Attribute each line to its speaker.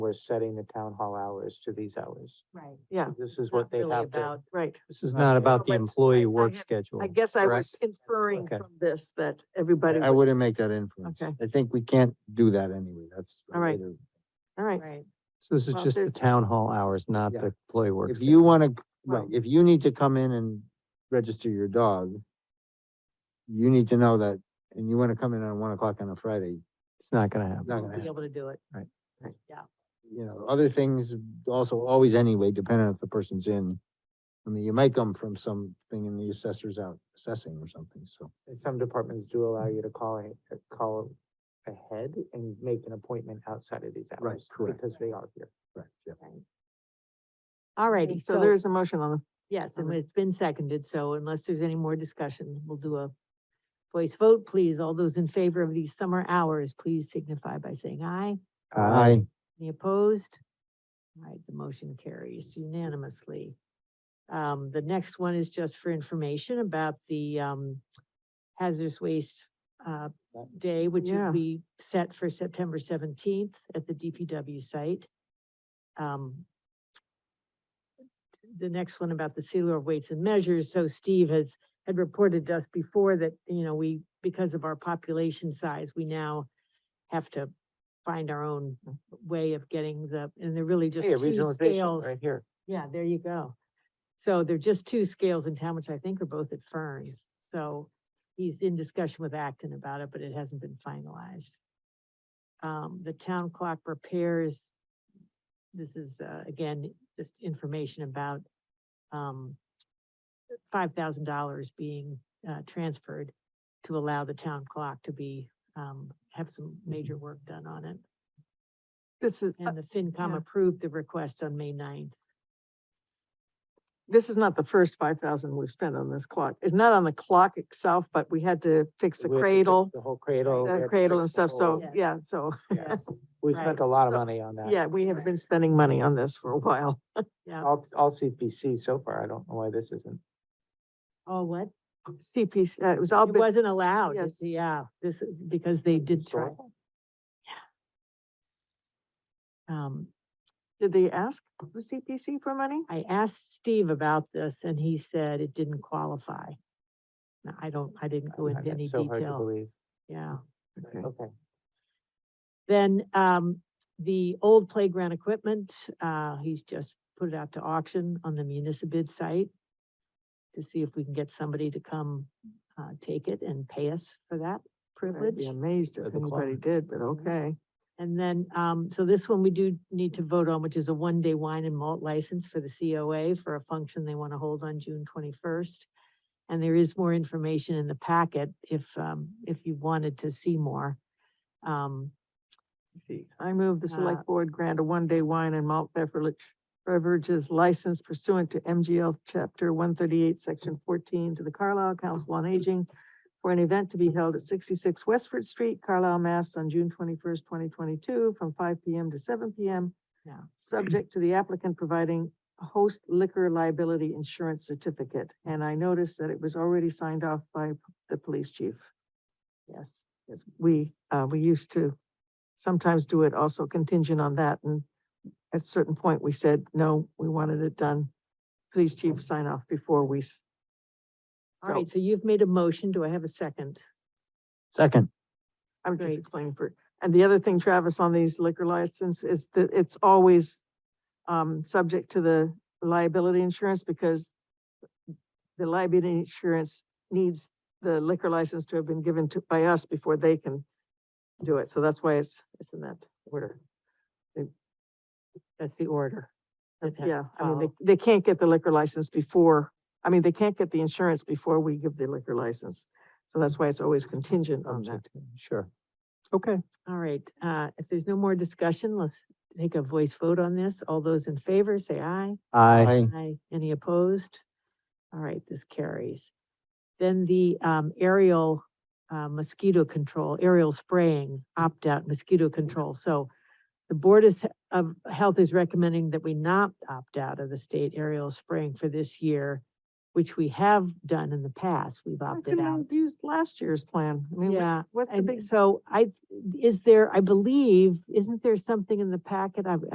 Speaker 1: we're setting the town hall hours to these hours.
Speaker 2: Right.
Speaker 3: yeah,
Speaker 1: This is what they have to,
Speaker 2: about
Speaker 3: right.
Speaker 4: This is
Speaker 1: Right.
Speaker 4: not about the
Speaker 3: But I- I
Speaker 4: employee work
Speaker 3: have-
Speaker 4: schedule.
Speaker 3: I guess I was inferring
Speaker 4: Okay.
Speaker 3: from this that everybody,
Speaker 4: I
Speaker 3: was-
Speaker 4: wouldn't make that inference.
Speaker 3: Okay.
Speaker 4: I think we can't do that anyway. That's.
Speaker 3: All right.
Speaker 4: related.
Speaker 3: all right,
Speaker 2: Right.
Speaker 4: So this is
Speaker 3: Well,
Speaker 4: just the
Speaker 3: there's-
Speaker 4: town hall hours, not
Speaker 1: Yeah.
Speaker 4: the employee work.
Speaker 1: If
Speaker 4: schedule.
Speaker 1: you want to,
Speaker 4: Right,
Speaker 3: Well-
Speaker 4: if you need to come in and register your dog, you need to know that, and you wanna come in on one o'clock on a Friday,
Speaker 1: it's not gonna happen.
Speaker 4: not
Speaker 3: be
Speaker 4: gonna happen.
Speaker 3: able to do it.
Speaker 4: Right.
Speaker 3: Right, yeah,
Speaker 4: You know, other things also always anyway, depending on if the person's in. I mean, you might come from something and the assessor's out assessing or something, so.
Speaker 1: And some departments do allow you to call, a- uh, call ahead and make an appointment outside of these hours.
Speaker 4: Right, correct.
Speaker 1: Because they are here.
Speaker 4: Right, yeah.
Speaker 3: Okay,
Speaker 2: Alrighty,
Speaker 3: so
Speaker 2: so,
Speaker 3: there's a motion on the,
Speaker 2: yes, and
Speaker 1: Uh-huh.
Speaker 3: um,
Speaker 2: it's been seconded, so unless there's any more discussion, we'll do a voice vote, please. All those in favor of these summer hours, please signify by saying aye.
Speaker 4: I,
Speaker 2: Any opposed? All right, the motion carries unanimously. Um, the next one is just for information about the, um, hazardous waste, uh, day, which is-
Speaker 3: Yeah.
Speaker 2: we set for September seventeenth at the DPW site. Um, the next one about the sealer of weights and measures, so Steve has, had reported to us before that, you know, we, because of our population size, we now have to find our own way of getting the, and they're really just
Speaker 1: Hey,
Speaker 2: two
Speaker 1: regionalization,
Speaker 2: scales.
Speaker 1: right here.
Speaker 2: Yeah, there you go. So they're just two scales in town, which I think are both at Fern's. So he's in discussion with Acton about it, but it hasn't been finalized. Um, the town clock repairs, this is, uh, again, just information about, um, five thousand dollars being, uh, transferred to allow the town clock to be, um, have some major work done on it.
Speaker 3: this is, uh,
Speaker 2: And the
Speaker 3: yeah.
Speaker 2: FinCom approved the request on May 9th.
Speaker 3: this is not the first five thousand we've spent on this clock. It's not on the clock itself, but we had to fix the
Speaker 1: We have to fix
Speaker 3: cradle,
Speaker 1: The whole cradle. we have
Speaker 3: the
Speaker 1: to
Speaker 3: cradle and
Speaker 1: fix the
Speaker 3: stuff, so,
Speaker 1: whole-
Speaker 2: whole-
Speaker 3: yeah, so,
Speaker 1: yeah. We
Speaker 2: Right.
Speaker 1: spent a lot of
Speaker 3: So-
Speaker 1: money on that.
Speaker 3: yeah, we have been spending money on this for a while.
Speaker 2: Yeah,
Speaker 1: All, all CPC so far. I don't know why this isn't.
Speaker 2: oh, what?
Speaker 3: CPC, uh, it was
Speaker 1: Oh,
Speaker 3: all,
Speaker 2: It
Speaker 3: been-
Speaker 2: wasn't allowed,
Speaker 3: yes.
Speaker 2: is- yeah, this, is because they did try.
Speaker 1: historical.
Speaker 2: Um,
Speaker 3: did they ask the CPC for money?
Speaker 2: I asked Steve about this and he said it didn't qualify. Now, I don't, I didn't go
Speaker 1: Uh,
Speaker 2: into
Speaker 1: that's
Speaker 2: any
Speaker 1: so hard to
Speaker 2: detail,
Speaker 1: believe.
Speaker 2: yeah.
Speaker 3: Okay.
Speaker 1: Okay.
Speaker 2: Then, um, the old playground equipment, uh, he's just put it out to auction on the municipal site to see if we can get somebody to come, uh, take it and pay us for that
Speaker 3: I'd be
Speaker 2: privilege.
Speaker 3: amazed
Speaker 4: At
Speaker 3: if
Speaker 4: the clock.
Speaker 3: anybody did, but okay.
Speaker 2: And then, um, so this one we do need to vote on, which is a one-day wine and malt license for the COA for a function they want to hold on June twenty-first. And there is more information in the packet if, um, if you wanted to see more. Um,
Speaker 3: I move the
Speaker 2: Uh,
Speaker 3: select board grant a one-day wine and malt beverage beverages license pursuant to MGL chapter one thirty-eight, section fourteen, to the Carlisle Council on Aging for an event to be held at sixty-six Westford Street, Carlisle, Mass. on June twenty-first, twenty twenty-two, from five PM to seven PM.
Speaker 2: Yeah.
Speaker 3: Subject to the applicant providing a host liquor liability insurance certificate. And I noticed that it was already signed off by p- the police chief.
Speaker 2: yes,
Speaker 3: Yes, we, uh, we used to sometimes do it also contingent on that, and at a certain point, we said, no, we wanted it done. Please chief sign off before we. s-
Speaker 2: all
Speaker 3: So,
Speaker 2: right, so you've made a motion, do I have a second?
Speaker 4: second,
Speaker 3: I'm just
Speaker 2: great.
Speaker 3: explaining for, and the other thing, Travis, on these liquor license is that it's always um, subject to the liability insurance because the liability insurance needs the liquor license to have been given to, by us before they can do it, so that's why it's, it's in that order.
Speaker 2: That's the order. that has to
Speaker 3: Yeah, I mean,
Speaker 2: follow.
Speaker 3: they, they can't get the liquor license before, I mean, they can't get the insurance before we give the liquor license. So that's why it's always contingent on that.
Speaker 1: Object, Sure.
Speaker 4: okay.
Speaker 2: All right, uh, if there's no more discussion, let's take a voice vote on this. All those in favor, say aye.
Speaker 4: I.
Speaker 2: Aye. Any opposed? All right, this carries. Then the um, aerial uh, mosquito control, aerial spraying, opt-out mosquito control. So the Board is- of Health is recommending that we not opt out of the state aerial spraying for this year, which we have done in the past. We've
Speaker 3: How
Speaker 2: opted
Speaker 3: come
Speaker 2: out.
Speaker 3: they Used last year's plan. I mean,
Speaker 2: Yeah,
Speaker 3: what's, what's the
Speaker 2: And
Speaker 3: big
Speaker 2: so I, is there, I believe, isn't there something in the packet? I,